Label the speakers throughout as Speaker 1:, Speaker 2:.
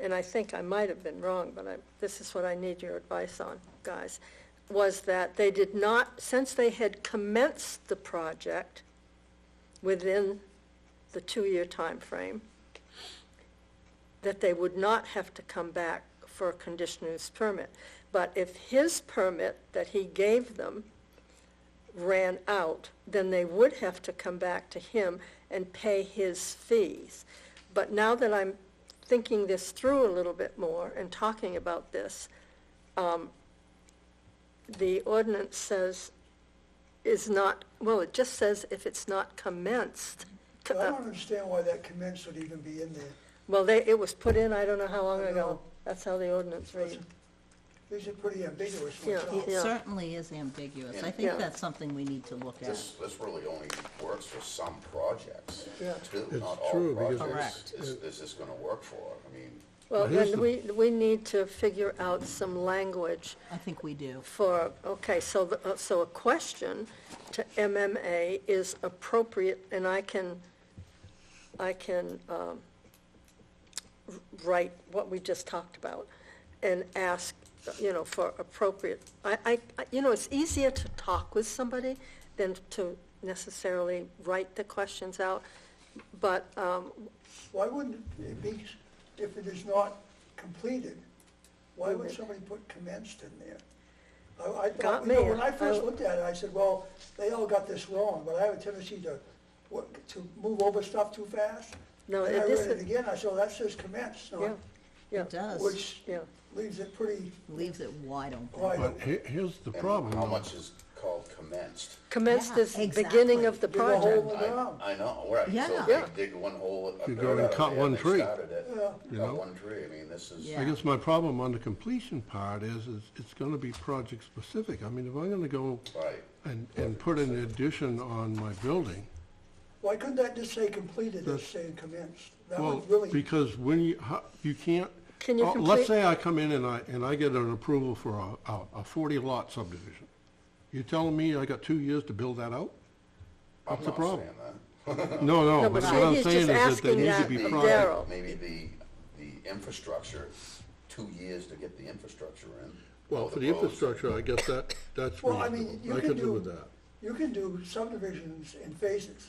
Speaker 1: and I think I might have been wrong, but I, this is what I need your advice on, guys, was that they did not, since they had commenced the project within the two-year time frame, that they would not have to come back for a conditional use permit. But if his permit that he gave them ran out, then they would have to come back to him and pay his fees. But now that I'm thinking this through a little bit more and talking about this, um, the ordinance says is not, well, it just says if it's not commenced.
Speaker 2: I don't understand why that commence would even be in there.
Speaker 1: Well, they, it was put in, I don't know how long
Speaker 2: I
Speaker 1: ago.
Speaker 2: know.
Speaker 1: That's how the ordinance reads.
Speaker 2: These are pretty ambiguous ones.
Speaker 1: Yeah.
Speaker 2: huh?
Speaker 1: Yeah.
Speaker 3: It certainly is ambiguous. I think
Speaker 1: Yeah.
Speaker 3: that's something we need to look at.
Speaker 4: This, this really only works for some projects,
Speaker 2: Yeah.
Speaker 4: too,
Speaker 5: It's
Speaker 4: not all
Speaker 5: true, because-
Speaker 4: projects
Speaker 3: Correct.
Speaker 4: is, is this gonna work for, I mean,
Speaker 1: Well,
Speaker 5: here's
Speaker 1: then
Speaker 5: the-
Speaker 1: we, we need to figure out some language
Speaker 3: I think we do.
Speaker 1: for, okay, so, the- uh, so a question to MMA is appropriate, and I can, I can um, w- write what we just talked about and ask, you know, for appropriate. I, I, I- you know, it's easier to talk with somebody than to necessarily write the questions out, but, um,
Speaker 2: Why wouldn't it be, if it is not completed, why would somebody put commenced in there? I, I
Speaker 1: Mm-hmm. Got
Speaker 2: thought, you know,
Speaker 1: me.
Speaker 2: when I first
Speaker 1: I-
Speaker 2: looked at it, I said, well, they all got this wrong, but I have a tendency to, work- to move over stuff too fast.
Speaker 1: No,
Speaker 2: And
Speaker 1: it
Speaker 2: I read
Speaker 1: isn't-
Speaker 2: it again, I said, well, that says commenced,
Speaker 1: yeah,
Speaker 2: so,
Speaker 1: yeah.
Speaker 3: It does,
Speaker 2: which
Speaker 1: Yeah.
Speaker 2: leaves it pretty
Speaker 3: leaves it wide open.
Speaker 2: wide.
Speaker 5: But he- here's the
Speaker 4: and
Speaker 5: problem.
Speaker 4: how
Speaker 5: though.
Speaker 4: much is called commenced?
Speaker 1: Commenced
Speaker 3: Yeah,
Speaker 1: is beginning of
Speaker 3: exactly.
Speaker 1: the
Speaker 2: Dig a hole
Speaker 1: project.
Speaker 2: in the
Speaker 4: I,
Speaker 2: ground.
Speaker 4: I know, right, so
Speaker 3: Yeah.
Speaker 4: they
Speaker 1: Yeah.
Speaker 4: dig one hole, a
Speaker 5: You
Speaker 4: dirt
Speaker 5: go and
Speaker 4: out of
Speaker 5: cut
Speaker 4: there,
Speaker 5: one
Speaker 4: they
Speaker 5: tree.
Speaker 4: started it,
Speaker 2: Yeah.
Speaker 4: cut
Speaker 5: know?
Speaker 4: one tree, I mean, this is.
Speaker 3: Yeah.
Speaker 5: I guess my problem on the completion part is, is it's gonna be project specific. I mean, if I'm gonna go
Speaker 4: Right,
Speaker 5: and, and put an addition on my building,
Speaker 2: Why couldn't that just say completed,
Speaker 5: That's-
Speaker 2: just say commenced? That
Speaker 5: well,
Speaker 2: would really.
Speaker 5: because when you, how- you can't.
Speaker 1: Can you
Speaker 5: oh,
Speaker 1: complete-
Speaker 5: Let's say I come in and I, and I get an approval for a, a- a forty lot subdivision. You telling me I got two years to build that out?
Speaker 4: I'm
Speaker 5: What's the
Speaker 4: not saying
Speaker 5: problem?
Speaker 4: that.
Speaker 5: No,
Speaker 1: No,
Speaker 5: no,
Speaker 1: but
Speaker 5: but what
Speaker 1: see,
Speaker 5: I'm
Speaker 1: he's
Speaker 5: saying is
Speaker 1: just
Speaker 5: that there
Speaker 1: asking
Speaker 5: needs to
Speaker 1: that
Speaker 5: be
Speaker 1: Maybe-
Speaker 5: project.
Speaker 1: Daryl.
Speaker 4: Maybe the, the infrastructure, two years to get the infrastructure in.
Speaker 5: Well,
Speaker 4: all
Speaker 5: for the
Speaker 4: roads.
Speaker 5: infrastructure, I guess that, that's
Speaker 2: Well, I
Speaker 5: reasonable.
Speaker 2: mean, you
Speaker 5: I
Speaker 2: can
Speaker 5: could live
Speaker 2: do,
Speaker 5: with that.
Speaker 2: you can do subdivisions in phases.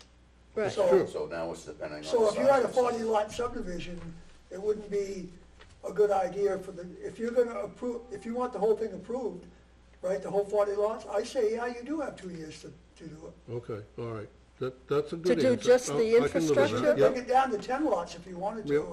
Speaker 1: Right.
Speaker 2: So-
Speaker 5: True.
Speaker 4: So now it's depending on.
Speaker 2: So
Speaker 4: the
Speaker 2: if you
Speaker 4: size
Speaker 2: had a
Speaker 4: of the-
Speaker 2: forty lot subdivision, it wouldn't be a good idea for the, if you're gonna approve, if you want the whole thing approved, right, the whole forty lots, I say, yeah, you do have two years to, to do it.
Speaker 5: Okay, all right. That, that's a good
Speaker 1: do
Speaker 5: answer. Oh,
Speaker 1: just
Speaker 5: I-
Speaker 1: the
Speaker 5: I can live with that,
Speaker 2: You
Speaker 1: infrastructure?
Speaker 2: could
Speaker 5: yeah.
Speaker 2: Break it down to ten lots if you wanted to.
Speaker 5: Yep.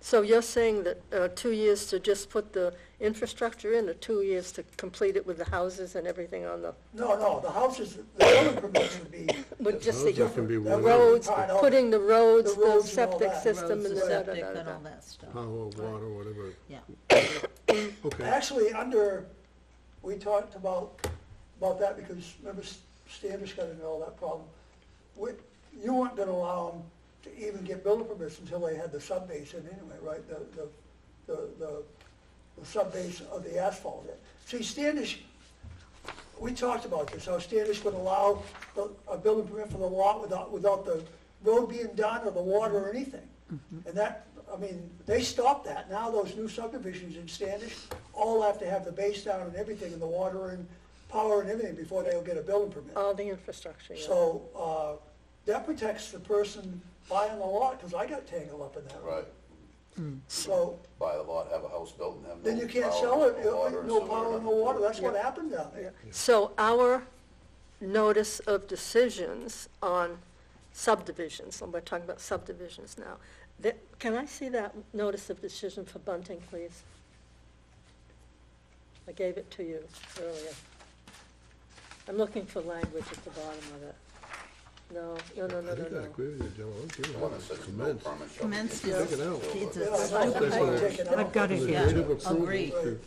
Speaker 1: So you're saying that uh, two years to just put the infrastructure in, or two years to complete it with the houses and everything on the,
Speaker 2: No, no, the houses, the building permits would be,
Speaker 1: with just
Speaker 5: Those
Speaker 1: the
Speaker 5: that can be
Speaker 2: that
Speaker 5: one
Speaker 2: road-
Speaker 5: road,
Speaker 1: roads,
Speaker 2: Part of it.
Speaker 1: putting the roads,
Speaker 2: The
Speaker 1: the
Speaker 2: roads and all
Speaker 1: septic
Speaker 2: that.
Speaker 1: system
Speaker 3: Roads,
Speaker 1: and
Speaker 3: the
Speaker 1: the
Speaker 3: septic, and
Speaker 1: da-da-da-da-da.
Speaker 3: all that stuff,
Speaker 5: power, water, whatever.
Speaker 3: yeah.
Speaker 5: Okay,
Speaker 2: actually, under, we talked about, about that because remember Standish got into all that problem. We, you weren't gonna allow them to even get building permits until they had the sub base in anyway, right? The, the, the, the, the sub base of the asphalt. See, Standish, we talked about this, how Standish would allow the- a building permit for the lot without, without the road being done or the water or anything. And that, I mean, they stopped that. Now those new subdivisions in Standish all have to have the base down and everything and the water and power and everything before they'll get a building permit.
Speaker 1: All the infrastructure, Oh, yeah.
Speaker 2: So, uh, that protects the person buying the lot, because I got tangled up in that.
Speaker 4: Right,
Speaker 2: So,
Speaker 4: buy a lot, have a house built and have no.
Speaker 2: then you can't
Speaker 4: power,
Speaker 2: sell it,
Speaker 4: water,
Speaker 2: no
Speaker 4: sewer,
Speaker 2: power, no
Speaker 4: nothing.
Speaker 2: water. That's what happened down there.
Speaker 1: So our notice of decisions on subdivisions, and we're talking about subdivisions now, that, can I see that notice of decision for Bunting, please? I gave it to you earlier. I'm looking for language at the bottom of it. No, no, no,
Speaker 5: I
Speaker 1: no,
Speaker 5: think
Speaker 1: no,
Speaker 5: I
Speaker 1: no.
Speaker 5: agree with you, Joe. I'm giving
Speaker 4: The one that
Speaker 5: it
Speaker 4: says no
Speaker 5: commence.
Speaker 4: permit shall be
Speaker 3: Commenced
Speaker 4: issued
Speaker 3: is,
Speaker 4: until
Speaker 5: Look it out.
Speaker 3: it's
Speaker 2: Yeah,
Speaker 3: a
Speaker 2: I like
Speaker 3: stupid
Speaker 2: that.
Speaker 3: word.
Speaker 2: I've got
Speaker 5: The
Speaker 2: it,
Speaker 5: date of approval
Speaker 3: Agreed.
Speaker 5: to-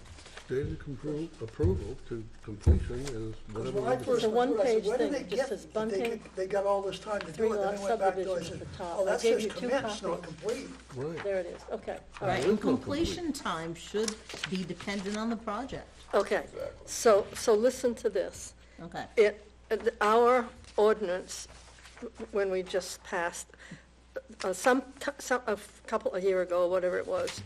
Speaker 5: Date of compro- approval to completion is
Speaker 2: Because
Speaker 5: whatever.
Speaker 2: when I
Speaker 5: we
Speaker 1: The
Speaker 2: first
Speaker 5: decide.
Speaker 2: went through, I
Speaker 1: one-page
Speaker 2: said, where do
Speaker 1: thing
Speaker 2: they
Speaker 1: that just
Speaker 2: get,
Speaker 1: says
Speaker 2: that they,
Speaker 1: bunting,
Speaker 2: could- they got all this time to do it,
Speaker 1: three-lot
Speaker 2: then I went back to, I
Speaker 1: subdivision
Speaker 2: said,
Speaker 1: at the top.
Speaker 2: oh,
Speaker 1: I
Speaker 2: that
Speaker 1: gave
Speaker 2: says
Speaker 1: you two
Speaker 2: commenced, not
Speaker 1: copies.
Speaker 2: complete.
Speaker 5: Right.
Speaker 1: There it is, okay, all right.
Speaker 3: Right,
Speaker 5: There is
Speaker 3: and
Speaker 5: no complete.
Speaker 3: completion time should be dependent on the project,
Speaker 1: Okay, so, so listen to this.
Speaker 3: okay.
Speaker 1: It, our ordinance, when we just passed, uh, some, some, a couple, a year ago, whatever it was,